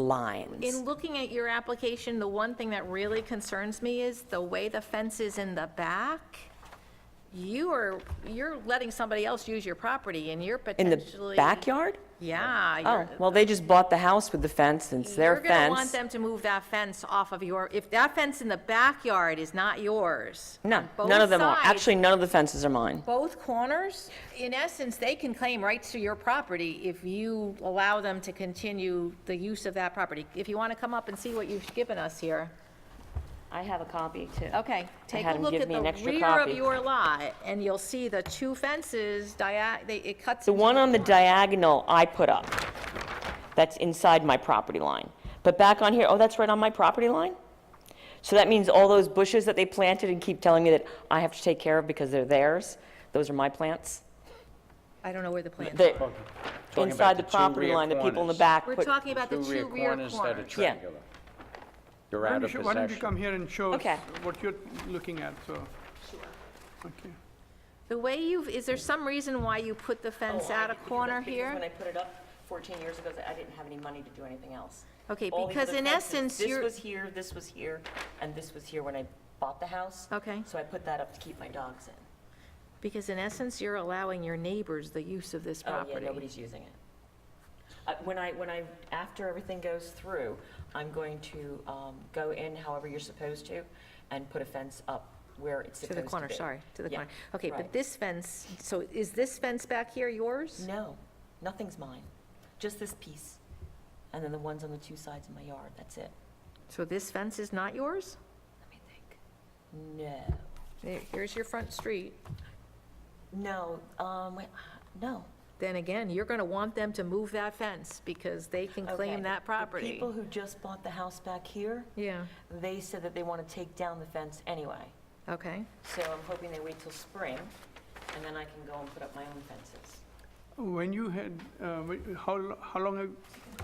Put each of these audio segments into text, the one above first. lines. In looking at your application, the one thing that really concerns me is the way the fence is in the back. You are, you're letting somebody else use your property and you're In potentially. the backyard? Oh, Yeah. you're- well, they just bought the house with the fence, and it's their You're going to want fence. them to move that fence off of your, if that fence in the backyard is not yours. No, on both none of them are. sides, Actually, none of the fences are mine. Both corners, in essence, they can claim rights to your property if you allow them to continue the use of that property. If you want to come up and see what you've given us here. I have a copy, too. Okay, take had a him look give at me the an extra rear of copy. your lot, and you'll see the two fences, dia- they- it cuts. The one on the diagonal I put up, that's inside my property line. But back on here, oh, that's right on my property line? So that means all those bushes that they planted and keep telling me that I have to take care of because they're theirs, those are my plants? I don't know where the plan is. They're inside the the two property rear line, the people in the corners. back We're put- talking about the two rear that are corners. Yeah. triangular. You're Why out don't of you- Why don't you come possession. here and show us Okay. what you're looking at, so. Okay. The way you've, is there some reason why you put the fence Oh, I at a didn't do corner that Because when I here? put it up 14 years ago, I didn't have any money to do anything else. Okay, All these because other in fences, essence, you're. This was here, this was here, and this was here when I bought the house. Okay. So I put that up to keep my dogs in. Because in essence, you're allowing your neighbors the use of this Oh, yeah, property. nobody's using it. Uh, When I, when I, after everything goes through, I'm going to um, go in however you're supposed to and put a fence up where it's To supposed to the be. corner, sorry, to the Yeah, corner. Okay, but right. this fence, so is this fence back here yours? No, nothing's mine, just this piece, and then the ones on the two sides of my yard, that's it. So this fence is not yours? Let me think. No, There- Here's your front street. no, um, wait, no. then again, you're going to want them to move that fence because they can Okay. claim that The property. people who just bought the house back here, Yeah, they said that they want to take down the fence anyway. okay. So I'm hoping they wait till spring, and then I can go and put up my own fences. When you had, uh, wh- how, lo- how long, have-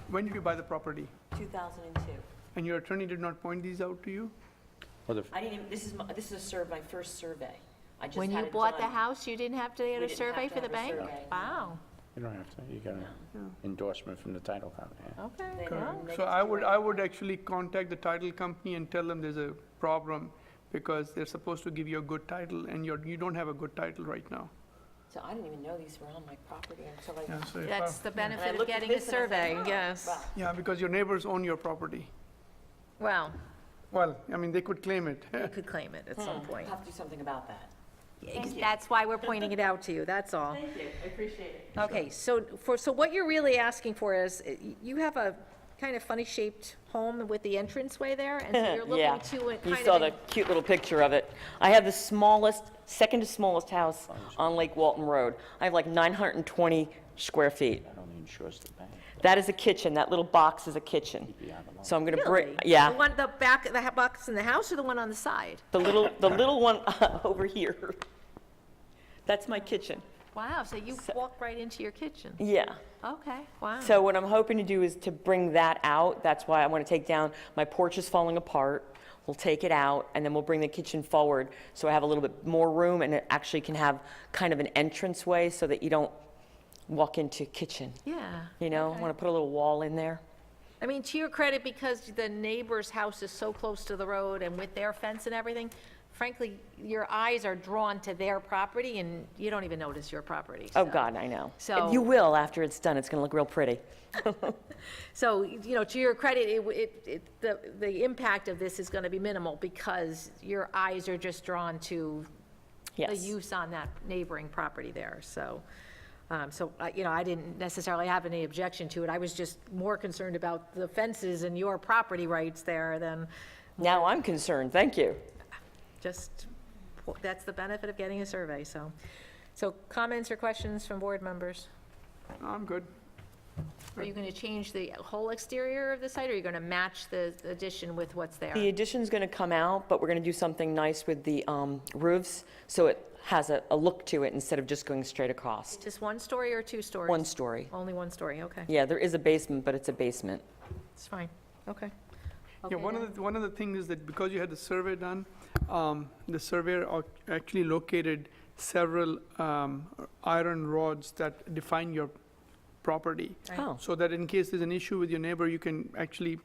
when did you buy the property? 2002. And your attorney did not point these out to you? Or the f- I didn't even, this is, my- this is a survey, my first survey. I just When you had it bought the done. house, you didn't have to get We a didn't survey have to for the have bank? a survey. Wow, You don't have to, you got an endorsement from the title company. okay. They- well, they So just I do would, it. I would actually contact the title company and tell them there's a problem because they're supposed to give you a good title and you're, you don't have a good title right now. So I didn't even know these were on my property until I. Yeah, so if I- That's the and I benefit of looked at getting a this and I was like, survey, "Oh, yes. wow." Yeah, because your neighbors own your property. Well, Well, I mean, they could claim it. you could claim it at some point. I'll have to do something about that. That's why we're pointing it out to you, that's all. Thank you, I appreciate it. Okay, so for, so what you're really asking for is, eh, you have a kind of funny-shaped home with the entranceway there, and so you're Yeah, looking to it kind of. you saw in- the cute little picture of it. I have the smallest, second to smallest house on Lake Walton Road. I have like 920 square feet. That only insures the bank. That is a kitchen, that little box is a kitchen. So I'm gonna bring, Really? yeah. The one, the back, the ha- box in the house or the one on the side? The little, the little one over here. That's my kitchen. Wow, so you walk right into your kitchen? Yeah. Okay, wow. So what I'm hoping to do is to bring that out. That's why I want to take down, my porch is falling apart. We'll take it out and then we'll bring the kitchen forward so I have a little bit more room and it actually can have kind of an entranceway so that you don't walk into kitchen. Yeah. You know, I want to put a little wall in there. I mean, to your credit, because the neighbor's house is so close to the road and with their fence and everything, frankly, your eyes are drawn to their property and you don't even notice your property. Oh, so- God, I know. So- You will after it's done. It's going to look real pretty. So, you know, to your credit, it, w- it, it- the, the impact of this is going to be minimal because your eyes are just drawn to the Yes. use on that neighboring property there, so, um, so, uh, you know, I didn't necessarily have any objection to it, I was just more concerned about the fences and your property rights there than Now I'm concerned. Thank you. just, that's the benefit of getting a survey, so. So comments or questions from board members? I'm good. Are you going to change the whole exterior of the site, or are you going to match the addition with what's there? The addition's going to come out, but we're going to do something nice with the um, roofs, so it has a, a look to it instead of just going straight across. Just one story or two stories? One story. Only one story, okay, Yeah, there is a basement, but it's a basement. it's fine, okay. Yeah, Okay, one then. of the, one of the things is that because you had the survey done, um, the surveyor ac- actually located several, um, iron rods that define your property. Oh. So that in case there's an issue with your neighbor, you can actually